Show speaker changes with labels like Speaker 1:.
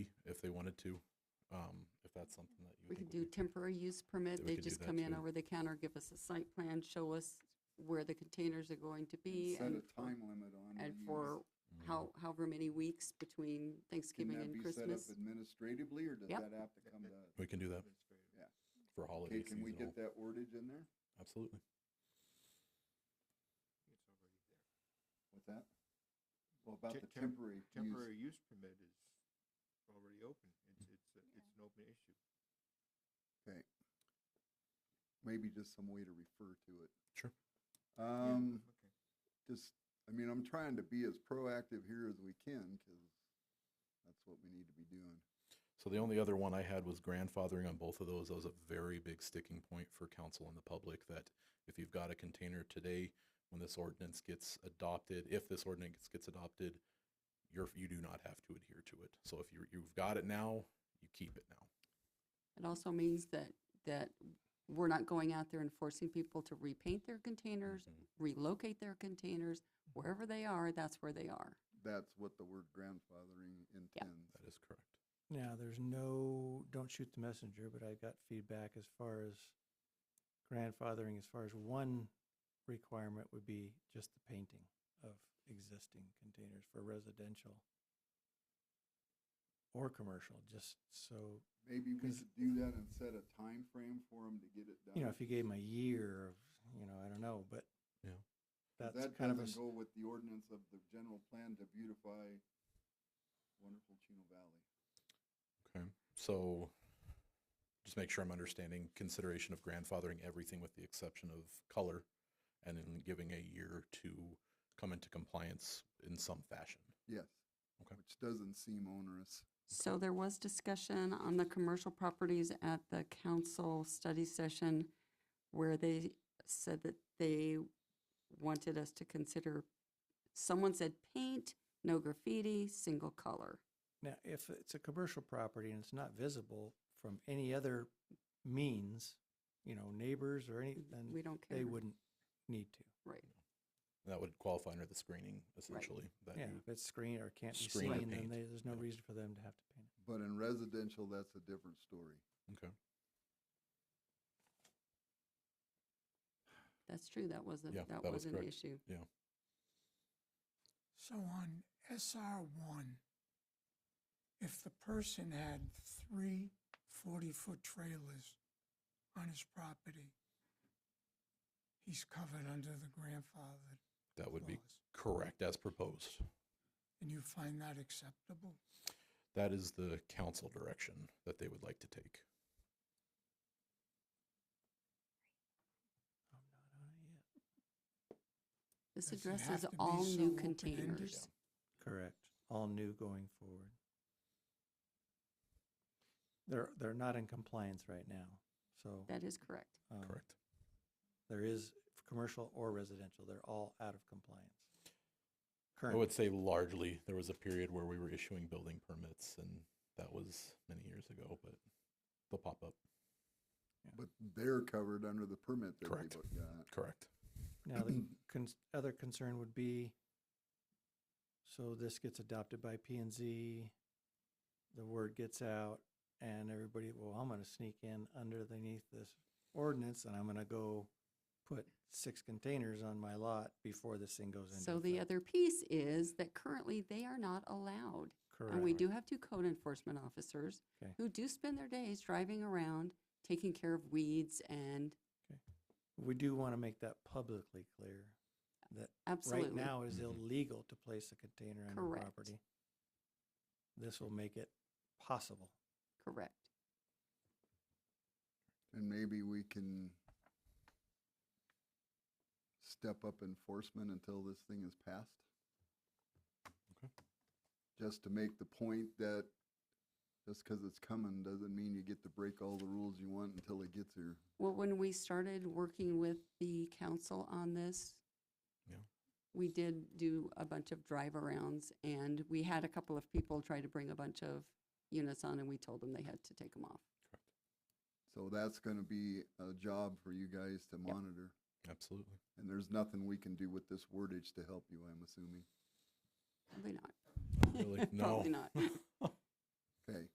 Speaker 1: wanted to, um, if that's something that you
Speaker 2: We
Speaker 1: think
Speaker 2: could
Speaker 1: would
Speaker 2: do
Speaker 1: be-
Speaker 2: temporary use permit,
Speaker 1: we
Speaker 2: they
Speaker 1: could do
Speaker 2: just
Speaker 1: that
Speaker 2: come in
Speaker 1: too.
Speaker 2: over the counter, give us a site plan, show us where the containers are going to be.
Speaker 3: Set
Speaker 2: and
Speaker 3: a
Speaker 2: for-
Speaker 3: time limit on.
Speaker 2: And
Speaker 3: when you
Speaker 2: for
Speaker 3: use-
Speaker 1: Mhm.
Speaker 2: how, however many weeks between
Speaker 3: Can
Speaker 2: Thanksgiving
Speaker 3: that
Speaker 2: and
Speaker 3: be set up
Speaker 2: Christmas.
Speaker 3: administratively or does
Speaker 2: Yep.
Speaker 3: that have to come to? us?
Speaker 1: Mm-hmm. We can do that
Speaker 3: Yeah.
Speaker 1: for holiday
Speaker 3: Okay, can we
Speaker 1: seasonal.
Speaker 3: get that wordage in there?
Speaker 1: Absolutely.
Speaker 3: What's that? Well, about
Speaker 4: Te-
Speaker 3: the
Speaker 4: temp-
Speaker 3: temporary use.
Speaker 4: Temporary use permit is already open. It's, it's, a- it's an open issue.
Speaker 3: Okay. Maybe just some way to refer to it.
Speaker 1: Sure.
Speaker 4: Yeah,
Speaker 3: Um,
Speaker 4: okay.
Speaker 3: just, I mean, I'm trying to be as proactive here as we can because that's what we need to be doing.
Speaker 1: So the only other one I had was grandfathering on both of those. That was a very big sticking point for council and the public that if you've got a container today, when this ordinance gets adopted, if this ordinance gets adopted, you're, you do not have to adhere to it. So if you, you've got it now, you keep it now.
Speaker 2: It also means that, that we're not going out there and forcing people to repaint their containers,
Speaker 1: Mhm.
Speaker 2: relocate their containers, wherever they are, that's where they are.
Speaker 3: That's what the word grandfathering intends.
Speaker 1: That is correct.
Speaker 5: Now, there's no, don't shoot the messenger, but I got feedback as far as grandfathering, as far as one requirement would be just the painting of existing containers for residential or commercial, just so,
Speaker 3: Maybe we
Speaker 5: 'Cause-
Speaker 3: should do that and set a time frame for them to get it done.
Speaker 5: you know, if you gave them a year of, you know, I don't know, but
Speaker 1: Yeah.
Speaker 5: that's
Speaker 3: That
Speaker 5: kind of a,
Speaker 3: doesn't
Speaker 5: s-
Speaker 3: go with the ordinance of the general plan to beautify wonderful Chino Valley.
Speaker 1: Okay, so just make sure I'm understanding consideration of grandfathering everything with the exception of color and then giving a year to come into compliance in some fashion.
Speaker 3: Yes.
Speaker 1: Okay.
Speaker 3: Which doesn't seem onerous.
Speaker 2: So there was discussion on the commercial properties at the council study session where they said that they wanted us to consider, someone said paint, no graffiti, single color.
Speaker 5: now, if it's a commercial property and it's not visible from any other means, you know, neighbors or any, then
Speaker 2: We don't care.
Speaker 5: they wouldn't need to.
Speaker 2: Right.
Speaker 1: That would qualify under the screening essentially. That
Speaker 5: Yeah,
Speaker 1: you-
Speaker 5: if it's screened or can't be
Speaker 1: screen
Speaker 5: seen,
Speaker 1: or
Speaker 5: then
Speaker 1: paint.
Speaker 5: they, there's no
Speaker 1: Yeah.
Speaker 5: reason for them to have to paint it.
Speaker 3: But in residential, that's a different story.
Speaker 1: Okay,
Speaker 2: That's true. That wasn't,
Speaker 1: Yeah,
Speaker 2: that
Speaker 1: that was
Speaker 2: was an
Speaker 1: correct.
Speaker 2: issue.
Speaker 6: So on SR one, if the person had three 40-foot trailers on his property, he's covered under the grandfathered
Speaker 1: that would be
Speaker 6: clause.
Speaker 1: correct as proposed.
Speaker 6: And you find that acceptable?
Speaker 1: That is the council direction that they would like to take.
Speaker 5: I'm not on it yet.
Speaker 2: This
Speaker 6: Does it have
Speaker 2: addresses
Speaker 6: to be
Speaker 2: all
Speaker 6: so
Speaker 2: new
Speaker 6: open-ended?
Speaker 2: containers.
Speaker 5: Correct. All new going forward. They're, they're not in compliance right now, so.
Speaker 2: That is correct.
Speaker 5: um,
Speaker 1: Correct.
Speaker 5: There is, f- commercial or residential, they're all out of compliance.
Speaker 1: I
Speaker 5: Current.
Speaker 1: would say largely, there was a period where we were issuing building permits and that was many years ago, but they'll pop up.
Speaker 3: But they're covered under the permit that
Speaker 1: Correct.
Speaker 3: they've got.
Speaker 1: Correct.
Speaker 5: Now, the cons- other concern would be, so this gets adopted by P and Z, the word gets out, and everybody, well, I'm gonna sneak in underneath this ordinance, and I'm gonna go put six containers on my lot before this thing goes into.
Speaker 2: So the
Speaker 5: effect.
Speaker 2: other piece is that currently they are not allowed. And we
Speaker 5: Correct.
Speaker 2: do have two code enforcement officers
Speaker 5: Okay.
Speaker 2: who do spend their days driving around, taking care of weeds and
Speaker 5: We do wanna make that publicly clear, that right
Speaker 2: absolutely.
Speaker 5: now it is
Speaker 1: Mhm.
Speaker 5: illegal to place a container on your
Speaker 2: Correct.
Speaker 5: property. This will make it possible.
Speaker 2: Correct.
Speaker 3: And maybe we can step up enforcement until this thing is passed.
Speaker 1: Okay.
Speaker 3: Just to make the point that just because it's coming doesn't mean you get to break all the rules you want until it gets here.
Speaker 2: Well, when we started working with the council on this,
Speaker 1: Yeah.
Speaker 2: we did do a bunch of drive arounds and we had a couple of people try to bring a bunch of units on and we told them they had to take them off.
Speaker 3: So that's going to be a job for you guys to monitor.
Speaker 1: Absolutely.
Speaker 3: And there's nothing we can do with this wordage to help you, I'm assuming.
Speaker 2: Probably not.
Speaker 1: Really? No.
Speaker 2: Probably not.
Speaker 3: Okay,